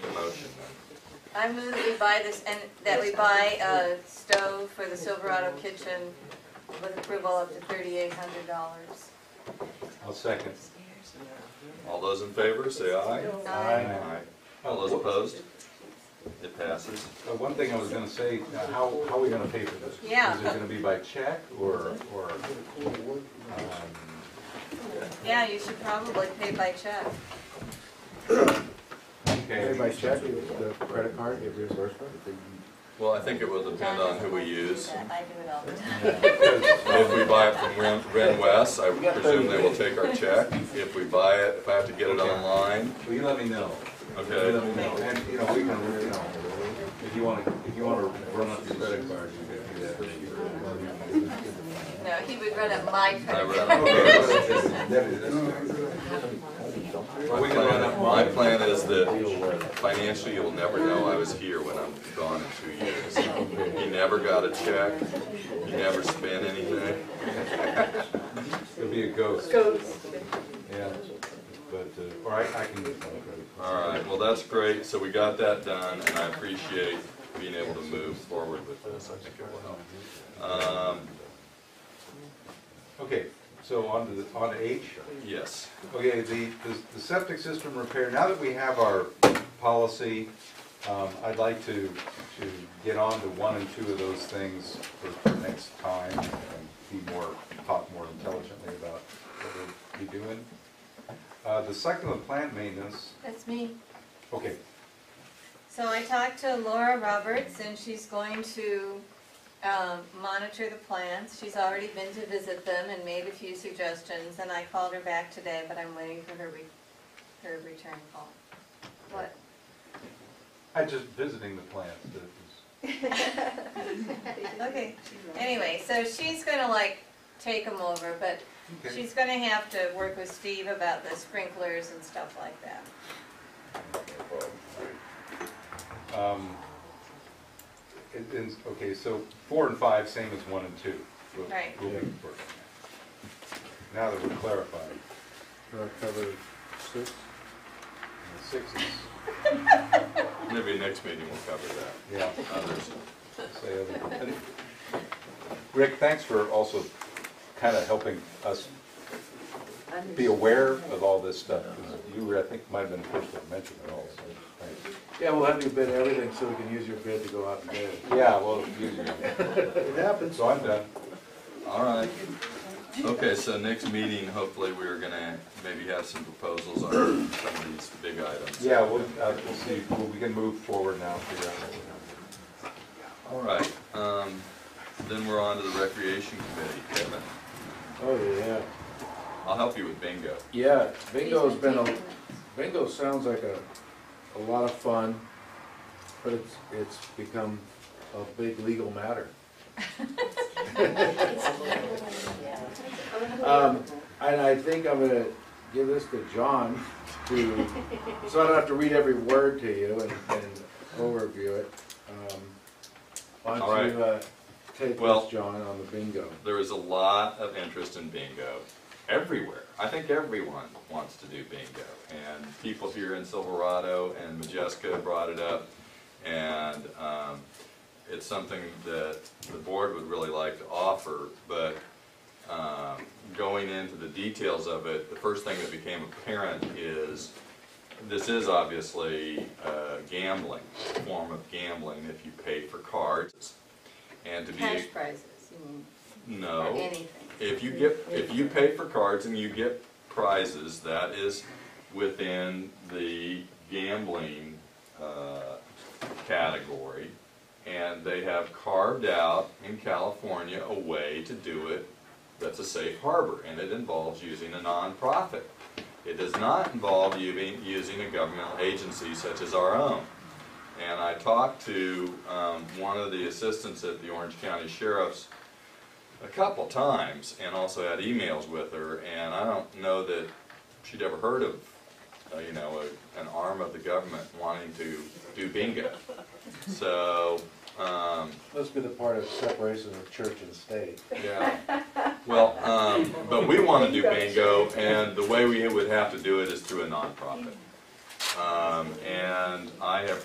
I move that we buy this, and that we buy a stove for the Silverado kitchen with approval up to thirty-eight hundred dollars. I'll second. All those in favor, say aye. All those opposed? It passes. Uh, One thing I was gonna say, uh, how, how are we gonna pay for this? Yeah. Is it gonna be by check or, or, um, Yeah, you should probably pay by check. okay, Anybody check the credit card, get reimbursement? Well, I think it will depend on who we use. I do it all the time. If we buy it from Ren- Ren West, I presume they will take our check. If we buy it, if I have to get it online, will you let me know? You let okay? me know, and, you know, we can, you know, if you wanna, if you wanna run up your credit card, you can do No, he would run up my I credit. run card. that. My plan, my plan is that financially, you'll never know I was here when I'm gone in two years. You never got a check, you never spent anything. It'll be a ghost, Goats. yeah, but, uh, or I, I can get my credit card. All right, well, that's great, so we got that done, and I appreciate being able to move forward with this, I think it will help. Um, Okay, so on to the, on to H. yes, Okay, the, the- the septic system repair, now that we have our policy, um, I'd like to, to get on to one and two of those things for, for next time and be more, talk more intelligently about what we'll be doing. Uh, the succulent plant maintenance, That's me. okay, So I talked to Laura Roberts, and she's going to um, monitor the plants. She's already been to visit them and made a few suggestions, and I called her back today, but I'm waiting for her, re- her return call. What? I just visiting the plants, that is, Okay, anyway, so she's gonna like take them over, but okay. she's gonna have to work with Steve about the sprinklers and stuff like that. Um, it- it's- okay, so four and five, same as one and two. We'll- Right. we'll be working on that. Now that we're clarified, Uh, Cover six? and six is, maybe next meeting we'll cover that, yeah, others. say other- and- Rick, thanks for also kind of helping us be aware of all this stuff. 'cause You were, I think, might have been the first to mention it all, so, thanks. Yeah, we'll have you bid everything so we can use your bid to go out and bid. Yeah, well, you- It happens. so I'm done. All right, okay, so next meeting, hopefully, we're gonna maybe have some proposals on some of these big items. Yeah, we'll, uh, we'll see, Well, we can move forward now, figure out what we're All doing. right, um, then we're on to the recreation committee, Kevin. Oh, yeah. I'll help you with bingo. Yeah, bingo's been, a bingo sounds like a, a lot of fun, but it's, it's become a big legal matter. Um, and I think I'm gonna give this to John to, so I don't have to read every word to you and, and overview it. Um, Why All don't right. you, uh, take Well- this, John, on the bingo? There is a lot of interest in bingo everywhere. I think everyone wants to do bingo. And people here in Silverado and Majeska brought it up. And um, it's something that the board would really like to offer, but um, going into the details of it, the first thing that became apparent is this is obviously uh, gambling, a form of gambling if you pay for cards. And to be, Cash prizes, you mean, no. or anything. If you get, if you pay for cards and you get prizes, that is within the gambling uh, category. And they have carved out in California a way to do it that's a safe harbor, and it involves using a nonprofit. It does not involve you being- using a governmental agency such as our own. And I talked to um, one of the assistants at the Orange County Sheriff's a couple times and also had emails with her and I don't know that she'd ever heard of, uh, you know, a, an arm of the government wanting to do bingo. So, um, Must be the part of separation of church and state. yeah, well, um, but we wanna do bingo and the way we would have to do it is through a nonprofit. Um, and I have